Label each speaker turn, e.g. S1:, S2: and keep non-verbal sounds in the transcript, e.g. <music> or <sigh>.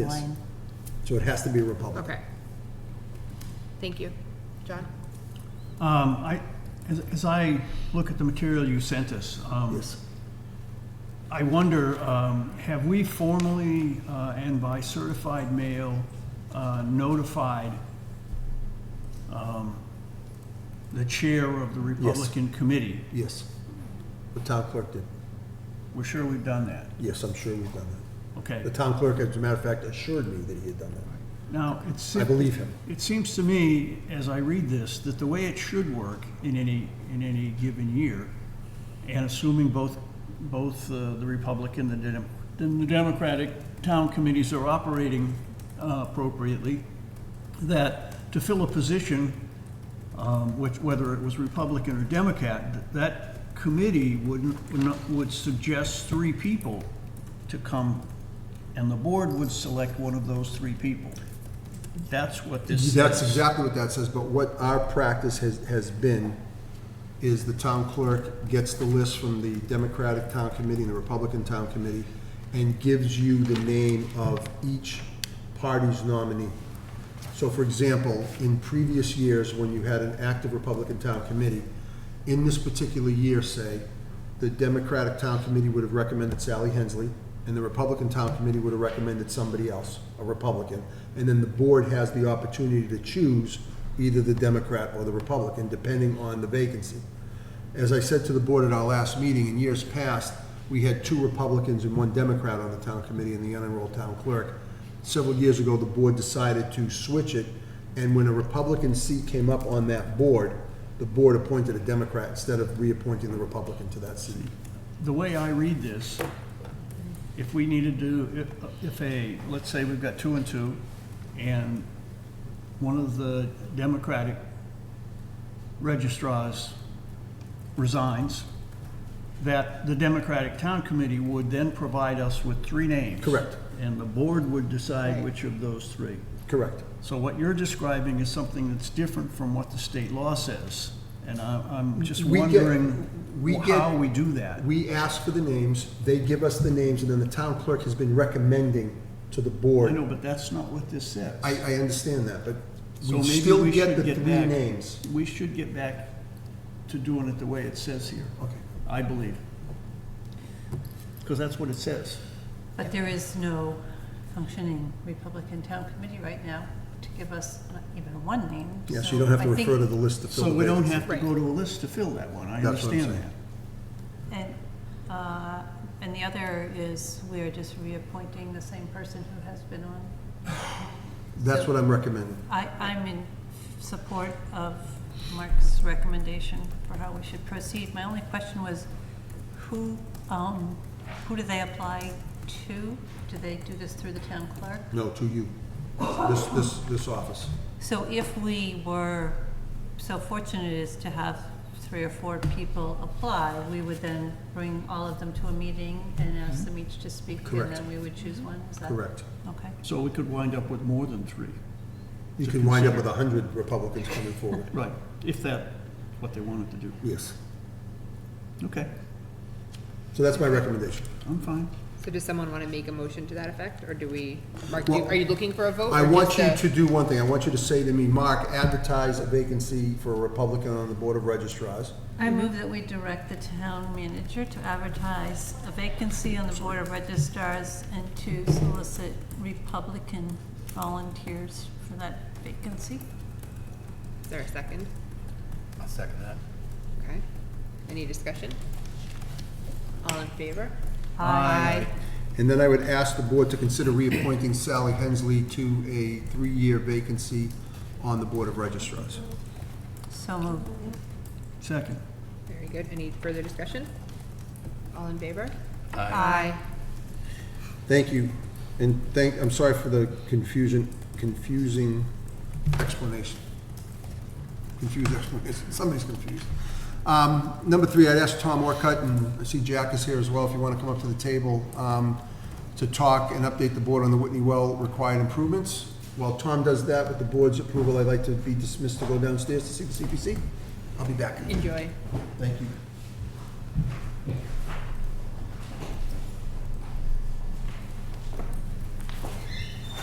S1: Yes.
S2: Line.
S1: So it has to be a Republican.
S3: Okay. Thank you. John?
S4: Um, I, as, as I look at the material you sent us, um,
S1: Yes.
S4: I wonder, um, have we formally, uh, and by certified mail, uh, notified, um, the chair of the Republican Committee?
S1: Yes. The town clerk did.
S4: We're sure we've done that,
S1: Yes, I'm sure we've done that.
S4: okay?
S1: The town clerk, as a matter of fact, assured me that he had done that.
S4: Now, it's.
S1: I believe him.
S4: It seems to me, as I read this, that the way it should work in any, in any given year, and assuming both, both uh, the Republican and the Dem- and the Democratic town committees are operating uh, appropriately, that to fill a position, um, which, whether it was Republican or Democrat, that- that committee would, would not- would suggest three people to come, and the board would select one of those three people. That's what this says.
S1: That's exactly what that says, but what our practice has, has been is the town clerk gets the list from the Democratic Town Committee and the Republican Town Committee and gives you the name of each party's nominee. So for example, in previous years, when you had an active Republican Town Committee, in this particular year, say, the Democratic Town Committee would have recommended Sally Hensley, and the Republican Town Committee would have recommended somebody else, a Republican. And then the board has the opportunity to choose either the Democrat or the Republican, depending on the vacancy. As I said to the board at our last meeting, in years past, we had two Republicans and one Democrat on the town committee and the unenrolled town clerk. Several years ago, the board decided to switch it, and when a Republican seat came up on that board, the board appointed a Democrat instead of reappointing the Republican to that seat.
S4: the way I read this, if we needed to, if- if a, let's say we've got two and two, and one of the Democratic registrars resigns, that the Democratic Town Committee would then provide us with three names.
S1: Correct.
S4: And the board would decide which of those three.
S1: Correct.
S4: So what you're describing is something that's different from what the state law says, and I- I'm just
S1: We get-
S4: wondering
S1: we get-
S4: how we do that.
S1: We ask for the names, they give us the names, and then the town clerk has been recommending to the board.
S4: I know, but that's not what this says.
S1: I, I understand that, but
S4: So
S1: we
S4: maybe
S1: still
S4: we
S1: get
S4: should
S1: the
S4: get
S1: three
S4: back-
S1: names.
S4: We should get back to doing it the way it says here.
S1: Okay.
S4: I believe. Because that's what it says.
S2: But there is no functioning Republican town committee right now to give us even one name.
S1: Yeah, so you don't have to
S2: I think-
S1: refer to the list to fill
S4: So
S1: the
S4: we don't
S1: vacancy.
S4: have to go to a list to fill that one. I
S1: That's what I'm
S4: understand
S1: saying.
S4: that.
S2: And, uh, and the other is we're just reappointing the same person who has been on.
S1: That's what I'm recommending.
S2: I, I'm in support of Mark's recommendation for how we should proceed. My only question was, who, um, who do they apply to? Do they do this through the town clerk?
S1: No, to you. This, this, this office.
S2: So if we were so fortunate as to have three or four people apply, we would then bring all of them to a meeting and ask them each to speak?
S1: Mm-hmm. Correct.
S2: And then we would choose one, is that?
S1: Correct.
S2: Okay.
S4: So we could wind up with more than three.
S1: You can wind up with a hundred Republicans coming
S4: <laughs>
S1: forward.
S4: Right, if that, what they wanted to do.
S1: Yes.
S4: Okay,
S1: So that's my recommendation.
S4: I'm fine.
S3: So does someone want to make a motion to that effect, or do we, Mark,
S1: Well,
S3: you- are you looking for a vote?
S1: I
S3: or
S1: want
S3: just
S1: you
S3: a-
S1: to do one thing. I want you to say to me, Mark, advertise a vacancy for a Republican on the Board of Registrars.
S2: I move that we direct the town manager to advertise a vacancy on the Board of registrars and to solicit Republican volunteers for that vacancy.
S3: Is there a second?
S4: I'll second that.
S3: Okay. Any discussion? All in favor?
S4: Aye.
S1: And then I would ask the board to consider reappointing Sally Hensley to a three-year vacancy on the Board of Registrars.
S2: So moved.
S4: Second.
S3: Very good. Any further discussion? All in favor?
S2: Aye.
S1: Thank you, and thank, I'm sorry for the confusion, confusing explanation. Confused explanation, somebody's confused. Um, Number three, I'd ask Tom Orcutt, and I see Jack is here as well, if you want to come up to the table, um, to talk and update the board on the Whitney Well required improvements. While Tom does that, with the board's approval, I'd like to be dismissed to go downstairs to see the CPC. I'll be back.
S3: Enjoy.
S1: Thank you.